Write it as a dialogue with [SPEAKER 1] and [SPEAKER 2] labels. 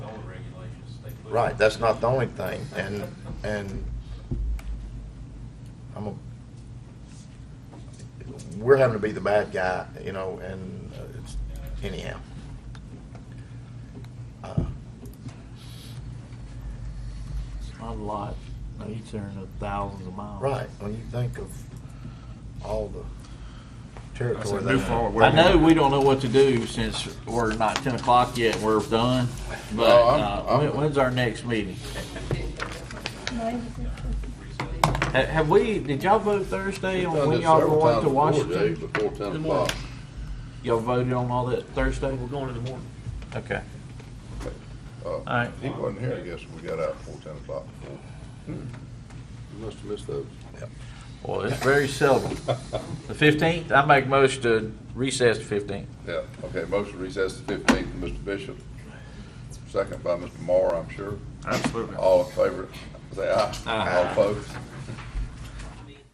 [SPEAKER 1] Right, that's not the only thing, and, and I'm a, we're having to be the bad guy, you know, and uh, it's, anyhow. Uh,
[SPEAKER 2] It's not a lot. Now, You're tearing up thousands of miles.
[SPEAKER 1] Right, when you think of all the
[SPEAKER 3] I
[SPEAKER 1] territory
[SPEAKER 3] said,
[SPEAKER 1] they
[SPEAKER 3] move forward. where
[SPEAKER 1] have.
[SPEAKER 2] I
[SPEAKER 3] we
[SPEAKER 2] know
[SPEAKER 3] want
[SPEAKER 2] we don't know what to do since we're not ten o'clock yet, we're done, but,
[SPEAKER 1] No, I'm-
[SPEAKER 2] uh, when-
[SPEAKER 1] I'm-
[SPEAKER 2] when's our next meeting? Ha- Have we, did y'all vote Thursday on when y'all going to Washington?
[SPEAKER 4] Before ten o'clock.
[SPEAKER 2] Y'all voted on all that Thursday?
[SPEAKER 5] We're going in the morning.
[SPEAKER 2] Okay.
[SPEAKER 4] All
[SPEAKER 2] right.
[SPEAKER 4] Uh, He wasn't here, I guess, when we got out before ten o'clock. You must have missed those.
[SPEAKER 2] Well, it's very seldom. The fifteenth, I make most to recess the fifteenth.
[SPEAKER 4] Yeah, okay, motion recess to fifteenth, Mr. Bishop. Second by Mr. Moore, I'm sure.
[SPEAKER 3] Absolutely.
[SPEAKER 4] All in favor, say aye.
[SPEAKER 2] Aye.
[SPEAKER 4] All opposed.